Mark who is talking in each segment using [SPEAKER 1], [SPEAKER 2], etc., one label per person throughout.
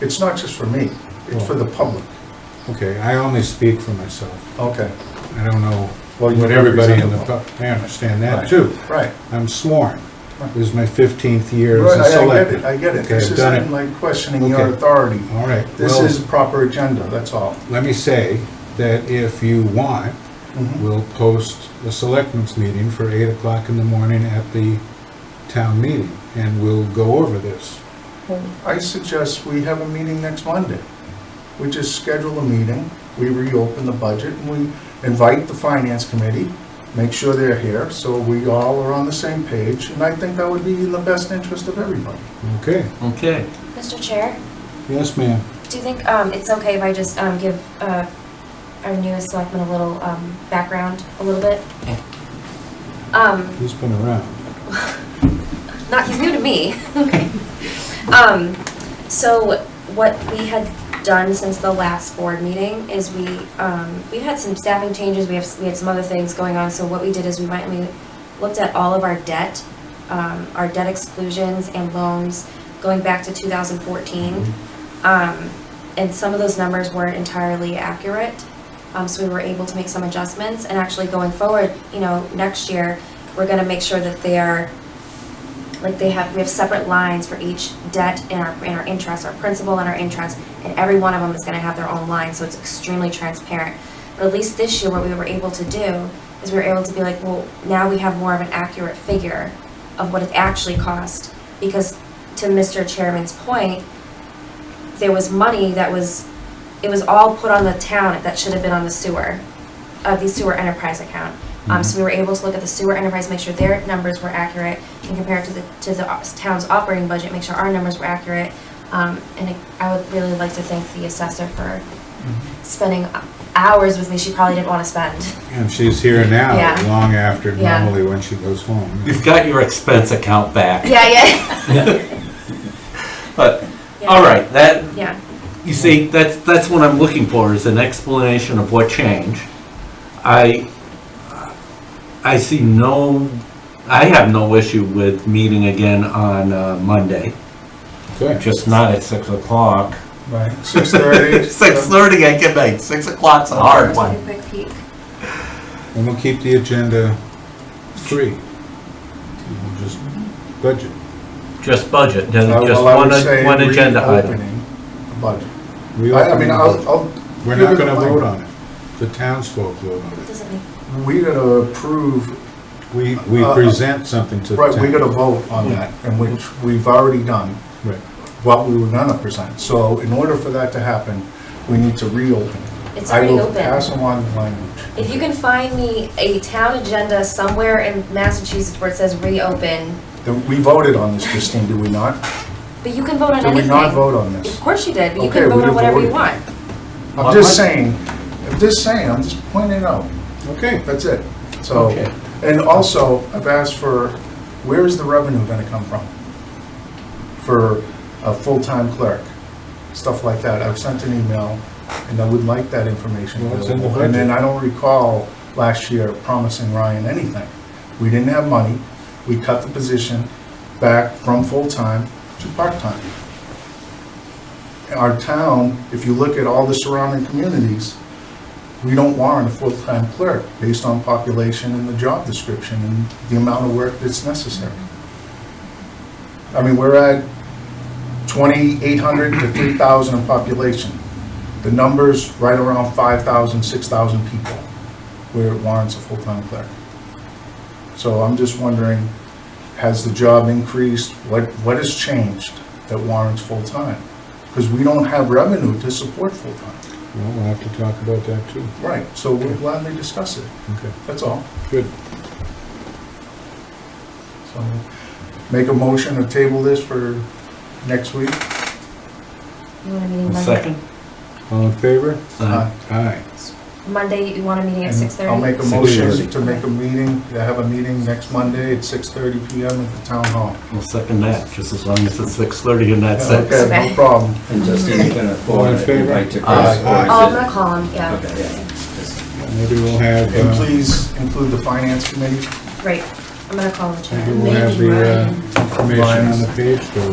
[SPEAKER 1] It's not just for me, it's for the public.
[SPEAKER 2] Okay, I only speak for myself.
[SPEAKER 1] Okay,
[SPEAKER 2] I don't know
[SPEAKER 1] Well, you
[SPEAKER 2] what everybody in the,
[SPEAKER 1] represent
[SPEAKER 2] pub- I understand that
[SPEAKER 1] Right.
[SPEAKER 2] too.
[SPEAKER 1] right.
[SPEAKER 2] I'm sworn.
[SPEAKER 1] Right.
[SPEAKER 2] This is my 15th year as
[SPEAKER 1] Right,
[SPEAKER 2] a
[SPEAKER 1] I- I get
[SPEAKER 2] selectman.
[SPEAKER 1] it, I get it.
[SPEAKER 2] Okay,
[SPEAKER 1] This
[SPEAKER 2] I've done
[SPEAKER 1] isn't
[SPEAKER 2] it.
[SPEAKER 1] like questioning your
[SPEAKER 2] Okay.
[SPEAKER 1] authority.
[SPEAKER 2] All right.
[SPEAKER 1] This
[SPEAKER 2] well,
[SPEAKER 1] is proper agenda, that's all.
[SPEAKER 2] Let me say that if you want,
[SPEAKER 1] Mhm.
[SPEAKER 2] we'll post a selectmen's meeting for 8 o'clock in the morning at the town meeting, and we'll go over this.
[SPEAKER 1] I suggest we have a meeting next Monday. We just schedule a meeting, we reopen the budget, and we invite the finance committee, make sure they're here, so we all are on the same page, and I think that would be in the best interest of everybody.
[SPEAKER 2] Okay?
[SPEAKER 3] Okay,
[SPEAKER 4] Mr. Chair,
[SPEAKER 2] Yes, ma'am.
[SPEAKER 4] do you think um, it's okay if I just um, give uh, our newest selectman a little um, background, a little bit? Um,
[SPEAKER 2] He's been around.
[SPEAKER 4] not he's new to me. um, so what we had done since the last board meeting is we um, we've had some staffing changes. We have we had some other things going on. So what we did is we went and we looked at all of our debt, um, our debt exclusions and loans going back to 2014, um, and some of those numbers weren't entirely accurate. Um, so we were able to make some adjustments, and actually going forward, you know, next year we're going to make sure that they are like they have, we have separate lines for each debt and our, and our interest, our principal and our interest, and every one of them is gonna have their own line, so it's extremely transparent. But at least this year, what we were able to do is we were able to be like, well, now we have more of an accurate figure of what it actually cost, because to Mr. Chairman's point, there was money that was, it was all put on the town that should have been on the sewer, uh, the sewer enterprise account.
[SPEAKER 3] Mm-hmm.
[SPEAKER 4] Um, so we were able to look at the sewer enterprise, make sure their numbers were accurate, and compare it to the, to the op- town's operating budget, make sure our numbers were accurate. Um, and I would really like to thank the assessor for
[SPEAKER 3] Mm-hmm.
[SPEAKER 4] spending hours with me she probably didn't wanna spend.
[SPEAKER 2] And she's here now,
[SPEAKER 4] Yeah.
[SPEAKER 2] long after
[SPEAKER 4] Yeah.
[SPEAKER 2] normally when she goes home.
[SPEAKER 3] you've got your expense account back,
[SPEAKER 4] Yeah, yeah.
[SPEAKER 3] but,
[SPEAKER 4] Yeah.
[SPEAKER 3] all right, that,
[SPEAKER 4] Yeah,
[SPEAKER 3] you see, that's, that's what I'm looking for, is an explanation of what changed. I, I see no, I have no issue with meeting again on uh, Monday,
[SPEAKER 2] Good.
[SPEAKER 3] just not at six o'clock.
[SPEAKER 1] Right. Six thirty. uh,
[SPEAKER 3] Six thirty, I get back, six o'clock's a hard
[SPEAKER 4] take a
[SPEAKER 3] one.
[SPEAKER 4] quick peek.
[SPEAKER 2] And we'll keep the agenda free. We'll just budget.
[SPEAKER 3] Just budget, then
[SPEAKER 1] Uh,
[SPEAKER 3] just
[SPEAKER 1] well, I would
[SPEAKER 3] one,
[SPEAKER 1] say
[SPEAKER 3] one agenda item.
[SPEAKER 1] reopening the budget.
[SPEAKER 2] We
[SPEAKER 1] I I mean,
[SPEAKER 2] open-
[SPEAKER 1] I'll, I'll.
[SPEAKER 2] We're not gonna vote on it. The townsfolk vote on it.
[SPEAKER 4] Doesn't make,
[SPEAKER 1] We gotta approve,
[SPEAKER 2] We, we
[SPEAKER 1] Uh,
[SPEAKER 2] present something to the town.
[SPEAKER 1] right, we gotta vote on that, and which we've already done,
[SPEAKER 2] Right.
[SPEAKER 1] what we were gonna present. So in order for that to happen, we need to reopen.
[SPEAKER 4] it's
[SPEAKER 1] I
[SPEAKER 4] already
[SPEAKER 1] will
[SPEAKER 4] open.
[SPEAKER 1] pass along the language.
[SPEAKER 4] If you can find me a town agenda somewhere in Massachusetts where it says reopen,
[SPEAKER 1] Then We voted on this, Christine, did we not?
[SPEAKER 4] but you can vote on
[SPEAKER 1] Did
[SPEAKER 4] anything.
[SPEAKER 1] we not vote on this?
[SPEAKER 4] Of course you did, but you
[SPEAKER 1] Okay,
[SPEAKER 4] can
[SPEAKER 1] we
[SPEAKER 4] vote on
[SPEAKER 1] didn't
[SPEAKER 4] whatever
[SPEAKER 1] vote.
[SPEAKER 4] you want.
[SPEAKER 1] I'm just saying, I'm just saying, I'm just pointing it out.
[SPEAKER 2] Okay.
[SPEAKER 1] That's it. So,
[SPEAKER 3] Okay.
[SPEAKER 1] and also, I've asked for, where is the revenue gonna come from? For a full-time clerk, stuff like that. I've sent an email, and I would like that information
[SPEAKER 2] Well, it's in the
[SPEAKER 1] available. And then
[SPEAKER 2] budget.
[SPEAKER 1] I don't recall last year promising Ryan anything. We didn't have money. We cut the position back from full-time to part-time. Our town, if you look at all the surrounding communities, we don't warrant a full-time clerk based on population and the job description and the amount of work that's necessary. I mean, we're at 2,800 to 3,000 in population. The number's right around 5,000, 6,000 people where it warrants a full-time clerk. So I'm just wondering, has the job increased? What, what has changed that warrants full-time? Because we don't have revenue to support full-time.
[SPEAKER 2] Well, we'll have to talk about that too.
[SPEAKER 1] Right, so we'll gladly discuss it,
[SPEAKER 2] Okay,
[SPEAKER 1] that's all.
[SPEAKER 2] good.
[SPEAKER 1] So make a motion to table this for next week.
[SPEAKER 4] You want a meeting Monday?
[SPEAKER 3] Second?
[SPEAKER 2] All in favor?
[SPEAKER 3] Uh,
[SPEAKER 2] Aye.
[SPEAKER 4] Monday, you want a meeting at six
[SPEAKER 1] And I'll
[SPEAKER 4] thirty?
[SPEAKER 1] make a motion
[SPEAKER 2] 6:30.
[SPEAKER 1] to make a meeting, to have a meeting next Monday at 6:30 PM at the town hall.
[SPEAKER 3] I'll second that, just as long as it's six thirty and not six.
[SPEAKER 1] Okay, no problem.
[SPEAKER 5] And Justin's gonna
[SPEAKER 2] All
[SPEAKER 5] forward
[SPEAKER 2] in
[SPEAKER 5] it,
[SPEAKER 2] favor?
[SPEAKER 5] invite to Chris.
[SPEAKER 1] Aye.
[SPEAKER 5] or is
[SPEAKER 4] Oh, I'm
[SPEAKER 5] it-
[SPEAKER 4] gonna call him, yeah,
[SPEAKER 5] Okay, yeah, just-
[SPEAKER 2] Maybe we'll have,
[SPEAKER 1] And
[SPEAKER 2] uh,
[SPEAKER 1] please include the finance committee.
[SPEAKER 4] right, I'm gonna call the
[SPEAKER 2] maybe uh,
[SPEAKER 4] chair.
[SPEAKER 2] we'll have the uh, information on the page, though.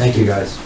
[SPEAKER 5] Thank you, guys.